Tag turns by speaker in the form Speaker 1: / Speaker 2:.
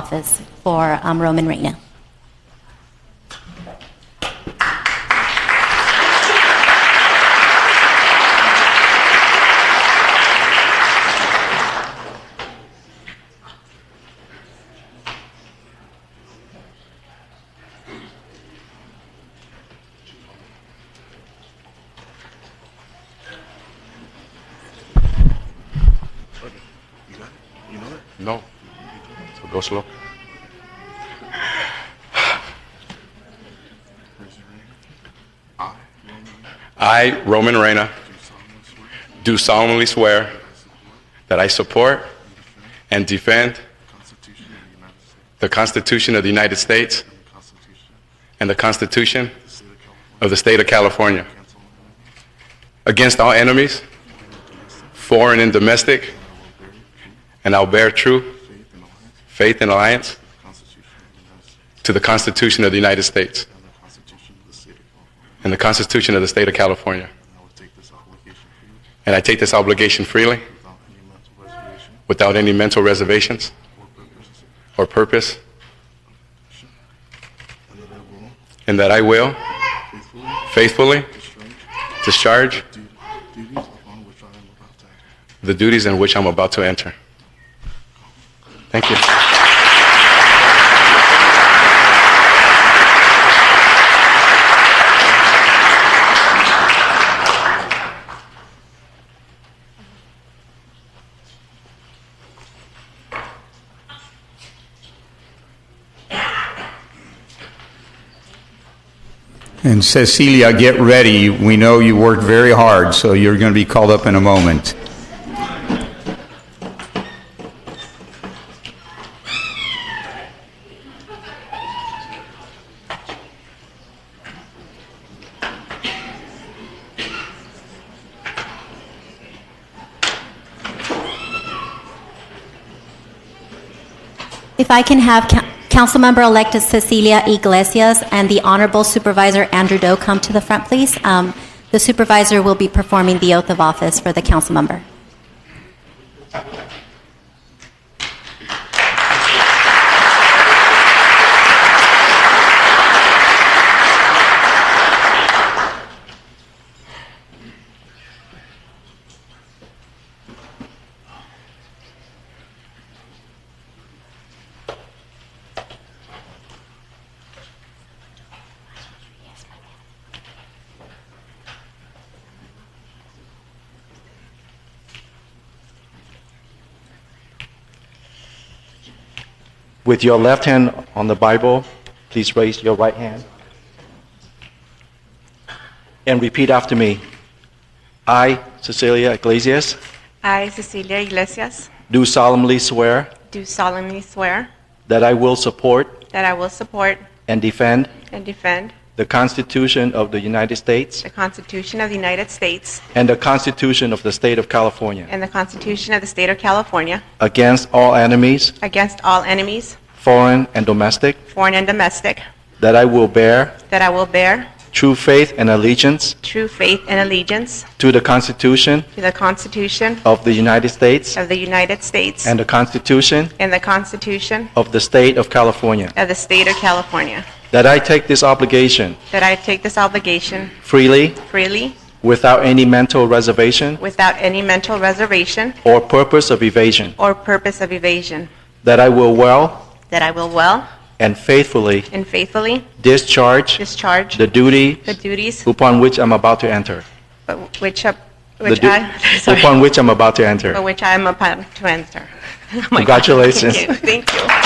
Speaker 1: office for um, Roman Reina.
Speaker 2: You got it? You know it?
Speaker 3: No. So go slow.
Speaker 2: Raise your hand. I, Roman,
Speaker 3: I, Roman Reina,
Speaker 2: do solemnly swear
Speaker 3: do solemnly swear
Speaker 2: that I support
Speaker 3: that I support
Speaker 2: and defend
Speaker 3: and defend
Speaker 2: the Constitution of the United States
Speaker 3: the Constitution of the United States
Speaker 2: and the Constitution
Speaker 3: and the Constitution
Speaker 2: of the State of California
Speaker 3: of the State of California
Speaker 2: against all enemies,
Speaker 3: against all enemies, foreign and domestic,
Speaker 2: and I will bear true
Speaker 3: and I'll bear true
Speaker 2: faith and allegiance
Speaker 3: faith and alliance
Speaker 2: to the Constitution of the United States
Speaker 3: to the Constitution of the United States
Speaker 2: and the Constitution of the State of California.
Speaker 3: and the Constitution of the State of California.
Speaker 2: And I will take this obligation freely
Speaker 3: And I take this obligation freely
Speaker 2: without any mental reservation
Speaker 3: without any mental reservations
Speaker 2: or
Speaker 3: or purpose,
Speaker 2: purpose. And that I will
Speaker 3: and that I will
Speaker 2: faithfully
Speaker 3: faithfully
Speaker 2: discharge
Speaker 3: discharge
Speaker 2: the du- duties upon which I am about to
Speaker 3: the duties in which I'm about to
Speaker 2: enter.
Speaker 3: enter. Thank you.
Speaker 4: And Cecilia, get ready. We know you worked very hard, so you're going to be called up in a moment.
Speaker 1: If I can have Coun- Councilmember-elect Cecilia Iglesias and the Honorable Supervisor Andrew Doe come to the front, please. Um, The supervisor will be performing the oath of office for the council member.
Speaker 5: With your left hand on the Bible, please raise your right hand. And repeat after me. I, Cecilia Iglesias,
Speaker 6: I, Cecilia Iglesias,
Speaker 5: do solemnly swear
Speaker 6: do solemnly swear
Speaker 5: that I will support
Speaker 6: that I will support
Speaker 5: and defend
Speaker 6: and defend
Speaker 5: the Constitution of the United States
Speaker 6: the Constitution of the United States
Speaker 5: and the Constitution of the State of California
Speaker 6: and the Constitution of the State of California
Speaker 5: against all enemies,
Speaker 6: against all enemies,
Speaker 5: foreign and domestic,
Speaker 6: foreign and domestic,
Speaker 5: that I will bear
Speaker 6: that I will bear
Speaker 5: true faith and allegiance
Speaker 6: true faith and allegiance
Speaker 5: to the Constitution
Speaker 6: to the Constitution
Speaker 5: of the United States
Speaker 6: of the United States
Speaker 5: and the Constitution
Speaker 6: and the Constitution
Speaker 5: of the State of California.
Speaker 6: of the State of California,
Speaker 5: That I take this obligation
Speaker 6: that I take this obligation
Speaker 5: freely,
Speaker 6: freely
Speaker 5: without any mental reservation
Speaker 6: without any mental reservation
Speaker 5: or purpose of evasion.
Speaker 6: or purpose of evasion,
Speaker 5: That I will well
Speaker 6: that I will well
Speaker 5: and faithfully
Speaker 6: and faithfully
Speaker 5: discharge
Speaker 6: discharge
Speaker 5: the duty
Speaker 6: The duties
Speaker 5: upon which I'm about to enter.
Speaker 6: but which, up-
Speaker 5: The
Speaker 6: which
Speaker 5: du-
Speaker 6: I, sorry,
Speaker 5: Upon which I'm about to enter.
Speaker 6: but which I am about to answer. Oh my God.
Speaker 5: Congratulations.
Speaker 6: Thank you. Thank you.